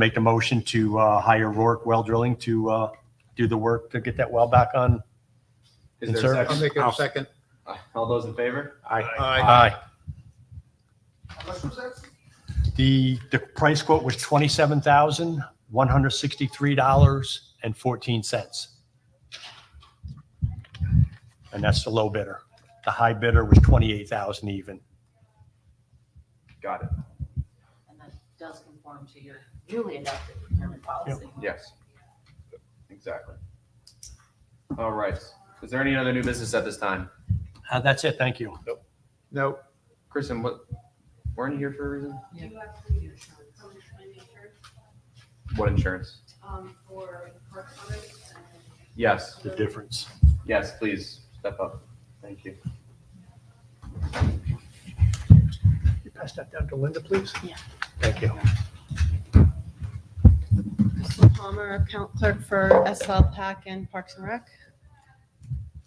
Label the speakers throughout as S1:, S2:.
S1: make a motion to uh, hire Rourke Well Drilling to uh, do the work to get that well back on.
S2: Is there
S1: Sir?
S2: a
S3: I'll
S2: second?
S3: make it a second.
S2: All those in favor?
S1: Aye.
S3: Aye.
S1: The, the price quote was twenty-seven thousand, one hundred sixty-three dollars and fourteen cents. And that's the low bidder. The high bidder was twenty-eight thousand even.
S2: Got it.
S4: And that does conform to your newly adopted procurement policy.
S2: Yes. Exactly. All right. Is there any other new business at this time?
S1: Uh, That's it, thank you.
S3: No,
S2: Kristen, what, weren't you here for a reason?
S5: You have to get insurance, so we're trying to make sure,
S2: What insurance?
S5: um, for the park products and
S2: Yes,
S1: The difference.
S2: yes, please step up. Thank you.
S1: Can you pass that down to Linda, please?
S4: Yeah.
S1: Thank you.
S6: Crystal Palmer, account clerk for SL PAC and Parks and Rec.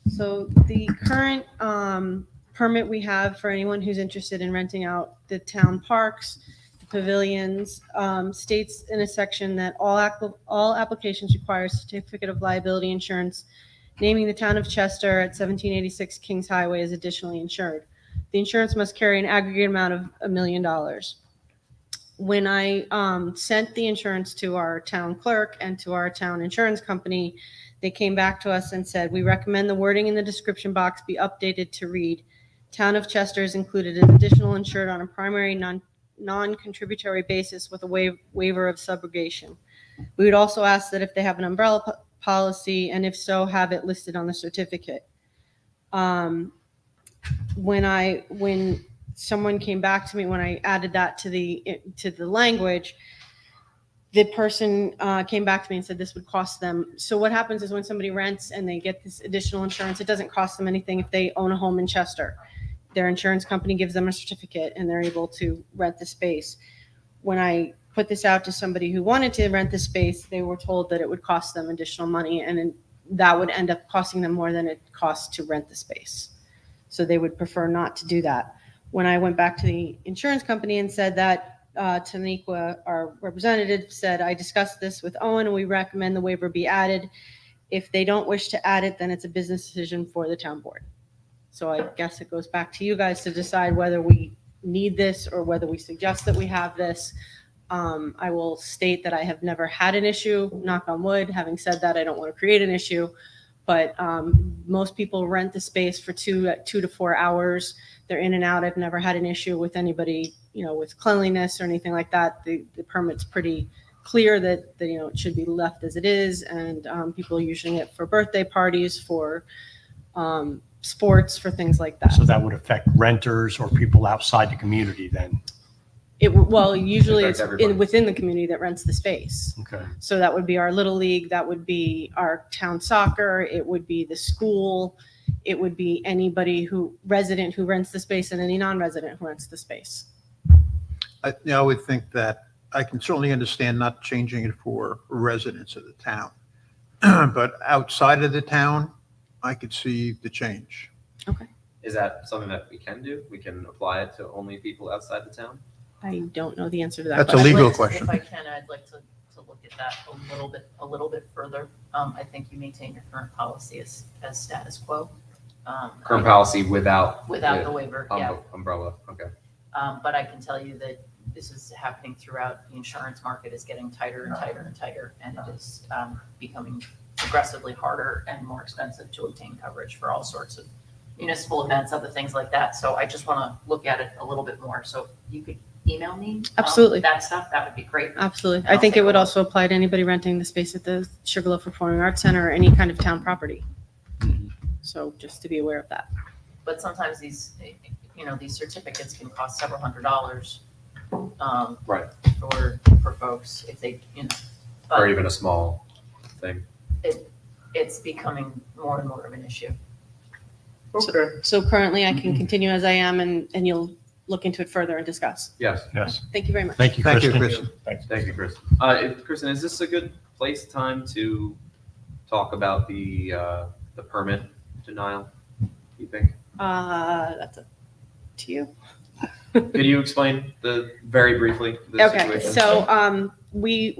S6: So the current um, permit we have for anyone who's interested in renting out the town parks, the pavilions, um, states in a section that all, ac- all applications require a certificate of liability insurance, naming the town of Chester at 1786 Kings Highway as additionally insured. The insurance must carry an aggregate amount of a million dollars when I um, sent the insurance to our town clerk and to our town insurance company, they came back to us and said, we recommend the wording in the description box be updated to read, Town of Chester is included as additional insured on a primary non, non-contributory basis with a wa- waiver of subrogation. We would also ask that if they have an umbrella po- policy, and if so, have it listed on the certificate. Um, When I, when someone came back to me when I added that to the to the language. The person uh, came back to me and said this would cost them. So what happens is when somebody rents and they get this additional insurance, it doesn't cost them anything if they own a home in Chester. Their insurance company gives them a certificate and they're able to rent the space. When I put this out to somebody who wanted to rent the space, they were told that it would cost them additional money and then that would end up costing them more than it costs to rent the space. So they would prefer not to do that when I went back to the insurance company and said that, uh, Taniqua, our representative, said, I discussed this with Owen and we recommend the waiver be added. If they don't wish to add it, then it's a business decision for the town board. So I guess it goes back to you guys to decide whether we need this or whether we suggest that we have this. Um, I will state that I have never had an issue, knock on wood. Having said that, I don't want to create an issue. But, um, most people rent the space for two, two to four hours they're in and out. I've never had an issue with anybody, you know, with cleanliness or anything like that. The, the permit's pretty clear that, that, you know, it should be left as it is. And um, people are using it for birthday parties, for um, sports, for things like that.
S1: So that would affect renters or people outside the community then?
S6: It, well, usually it's
S2: Affect everybody.
S6: in, within the community that rents the space.
S1: Okay.
S6: So that would be our little league, that would be our town soccer, it would be the school, it would be anybody who, resident who rents the space and any non-resident who rents the space.
S3: I, yeah, I would think that, I can certainly understand not changing it for residents of the town. But outside of the town, I could see the change.
S2: Is that something that we can do? We can apply it to only people outside the town?
S6: I don't know the answer to that.
S3: That's a
S6: question.
S4: I'd
S3: legal
S4: like to-
S3: question.
S4: If I can, I'd like to, to look at that a little bit, a little bit further. Um, I think you maintain your current policy as, as status quo. um,
S2: Current policy without.
S4: Without the waiver,
S2: um,
S4: yeah.
S2: Umbrella, okay.
S4: Um, but I can tell you that this is happening throughout, the insurance market is getting tighter and tighter and tighter, and it is, um, becoming progressively harder and more expensive to obtain coverage for all sorts of municipal events, other things like that. So I just want to look at it a little bit more. So if you could email me. um,
S6: Absolutely. Um,
S4: That stuff, that would be great.
S6: Absolutely.
S4: I'll
S6: I think
S4: take
S6: it
S4: a
S6: would
S4: look.
S6: also apply to anybody renting the space at the Sugarloaf Performing Arts Center or any kind of town property. So just to be aware of that.
S4: But sometimes these, you know, these certificates can cost several hundred dollars. um,
S2: Right.
S4: For, for folks if they, you know.
S2: Or
S4: But
S2: even a small thing.
S4: it's becoming more and more of an issue.
S2: Okay.
S6: So currently I can continue as I am and, and you'll look into it further and discuss.
S2: Yes,
S1: Yes.
S6: Thank you very much.
S1: Thank you,
S3: Thank you,
S1: Kristen.
S3: Kristen.
S2: thank you, Kristen. Uh, if- Kristen, is this a good place, time to talk about the, uh, the permit denial? You think?
S6: Uh, that's up to you.
S2: Could you explain the, very briefly? the
S6: Okay,
S2: situation?
S6: so, um, we,